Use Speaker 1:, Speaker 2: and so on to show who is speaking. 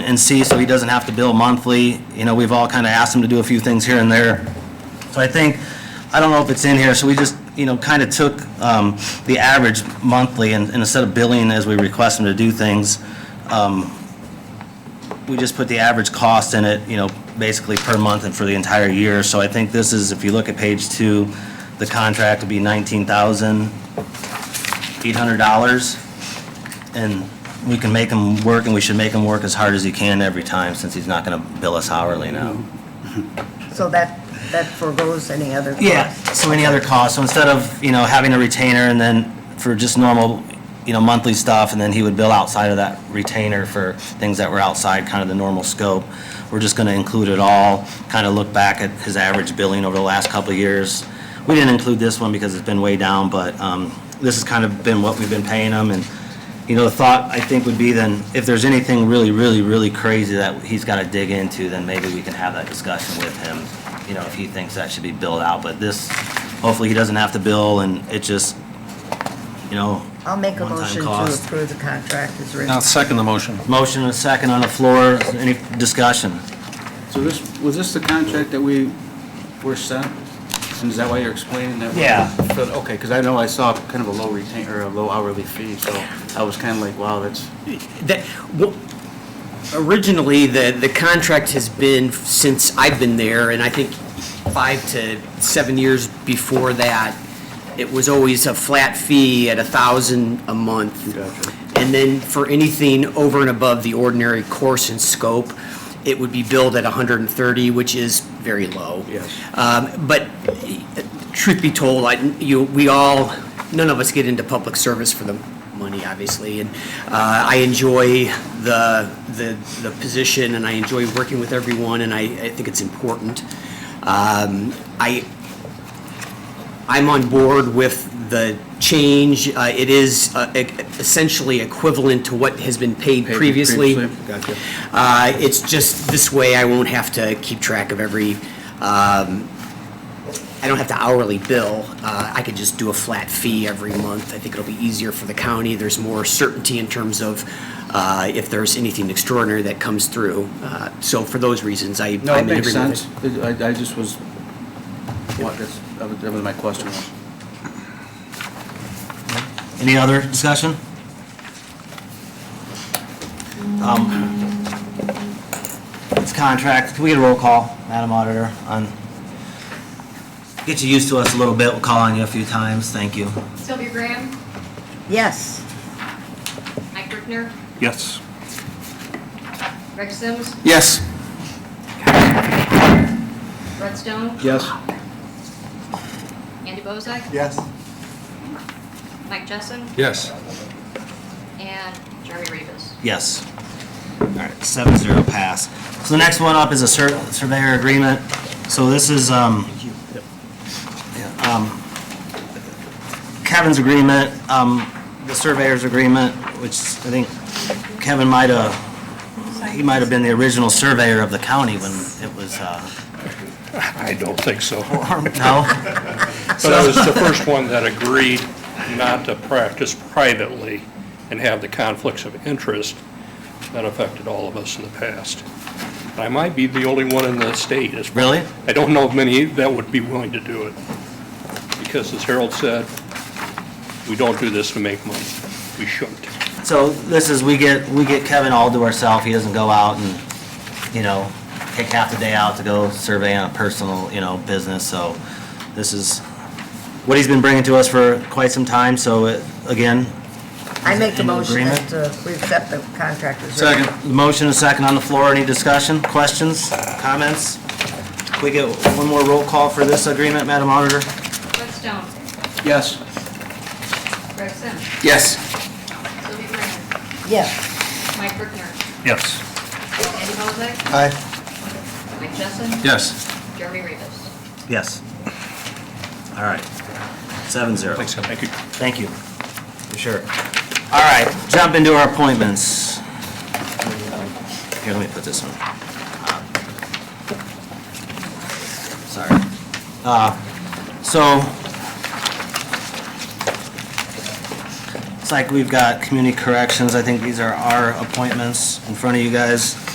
Speaker 1: and see, so he doesn't have to bill monthly. You know, we've all kind of asked him to do a few things here and there. So I think, I don't know if it's in here, so we just, you know, kind of took um, the average monthly and and instead of billing as we request him to do things, um, we just put the average cost in it, you know, basically per month and for the entire year. So I think this is, if you look at page two, the contract would be nineteen thousand eight hundred dollars. And we can make him work, and we should make him work as hard as he can every time, since he's not gonna bill us hourly now.
Speaker 2: So that, that foregoes any other cost?
Speaker 1: Yeah, so any other costs, so instead of, you know, having a retainer and then for just normal, you know, monthly stuff, and then he would bill outside of that retainer for things that were outside kind of the normal scope, we're just gonna include it all, kind of look back at his average billing over the last couple of years. We didn't include this one because it's been way down, but, um, this has kind of been what we've been paying him, and, you know, the thought, I think, would be then, if there's anything really, really, really crazy that he's gotta dig into, then maybe we can have that discussion with him, you know, if he thinks that should be billed out, but this, hopefully he doesn't have to bill, and it just, you know,
Speaker 2: I'll make a
Speaker 1: One-time
Speaker 2: motion to
Speaker 1: cost.
Speaker 2: approve the contract as written.
Speaker 3: I'll second the motion.
Speaker 1: motion and a second on the floor, any discussion?
Speaker 4: So this, was this the contract that we were sent? And is that why you're explaining that? we're-
Speaker 1: Yeah.
Speaker 4: But, Okay, because I know I saw kind of a low retain, or a low hourly fee, so I was kind of like, wow, that's,
Speaker 5: That, well, originally, the, the contract has been since I've been there, and I think five to seven years before that, it was always a flat fee at a thousand a month.
Speaker 4: Gotcha.
Speaker 5: And then for anything over and above the ordinary course and scope, it would be billed at hundred and thirty, which is very low.
Speaker 4: Yes.
Speaker 5: Um, but truth be told, I, you, we all, none of us get into public service for the money, obviously, and uh, I enjoy the, the, the position, and I enjoy working with everyone, and I, I think it's important. Um, I, I'm on board with the change. Uh, It is uh, e- essentially equivalent to what has been paid
Speaker 4: Paid
Speaker 5: previously.
Speaker 4: previously, gotcha.
Speaker 5: Uh, It's just, this way I won't have to keep track of every, um, I don't have to hourly bill. Uh, I could just do a flat fee every month. I think it'll be easier for the county. There's more certainty in terms of uh, if there's anything extraordinary that comes through. Uh, So for those reasons, I.
Speaker 4: no,
Speaker 5: I'm
Speaker 4: it
Speaker 5: in
Speaker 4: makes
Speaker 5: agreement with
Speaker 4: sense. I, I just was, what, that's, that was- that was my question.
Speaker 1: Any other discussion? Um, It's contract, can we get a roll call, Madam Auditor, on, get you used to us a little bit, we'll call on you a few times, thank you.
Speaker 6: Sylvia Graham,
Speaker 2: Yes,
Speaker 6: Mike Brickner,
Speaker 3: Yes.
Speaker 6: Greg Sims,
Speaker 3: Yes.
Speaker 6: Red Stone,
Speaker 4: Yes?
Speaker 6: Andy Bozak,
Speaker 4: Yes.
Speaker 6: Mike Jessen,
Speaker 3: Yes.
Speaker 6: and Jeremy Rivas.
Speaker 1: Yes. All right, seven zero pass. So the next one up is a sur- surveyor agreement. So this is, um, yeah, um, Kevin's agreement, um, the surveyor's agreement, which I think Kevin might have, he might have been the original surveyor of the county when it was, uh,
Speaker 7: I don't think so.
Speaker 1: no?
Speaker 7: But I was the first one that agreed not to practice privately and have the conflicts of interest that affected all of us in the past. I might be the only one in the state. as-
Speaker 1: Really?
Speaker 7: I don't know of many that would be willing to do it. Because as Harold said, we don't do this to make money. We shouldn't.
Speaker 1: So this is, we get, we get Kevin all to ourselves, he doesn't go out and, you know, take half the day out to go survey on a personal, you know, business, so this is what he's been bringing to us for quite some time, so it- again.
Speaker 2: I make a
Speaker 1: in
Speaker 2: motion
Speaker 1: agreement?
Speaker 2: that uh, we accept the contract as written.
Speaker 1: Second. Motion and second on the floor, any discussion, questions, comments? Can we get one more roll call for this agreement, Madam Auditor?
Speaker 6: Red Stone,
Speaker 4: Yes.
Speaker 6: Greg Sims,
Speaker 3: Yes.
Speaker 6: Sylvia Graham,
Speaker 2: Yes,
Speaker 6: Mike Brickner,
Speaker 7: Yes.
Speaker 6: Andy Bozak,
Speaker 3: Aye.
Speaker 6: Mike Jessen,
Speaker 3: Yes.
Speaker 6: Jeremy Rivas.
Speaker 1: Yes. All right, seven zero.
Speaker 3: Thanks, Kevin.
Speaker 7: Thank you.
Speaker 1: Thank you. For sure. All right, jump into our appointments. Here, let me put this on. Sorry. Uh, So, it's like we've got community corrections. I think these are our appointments in front of you guys.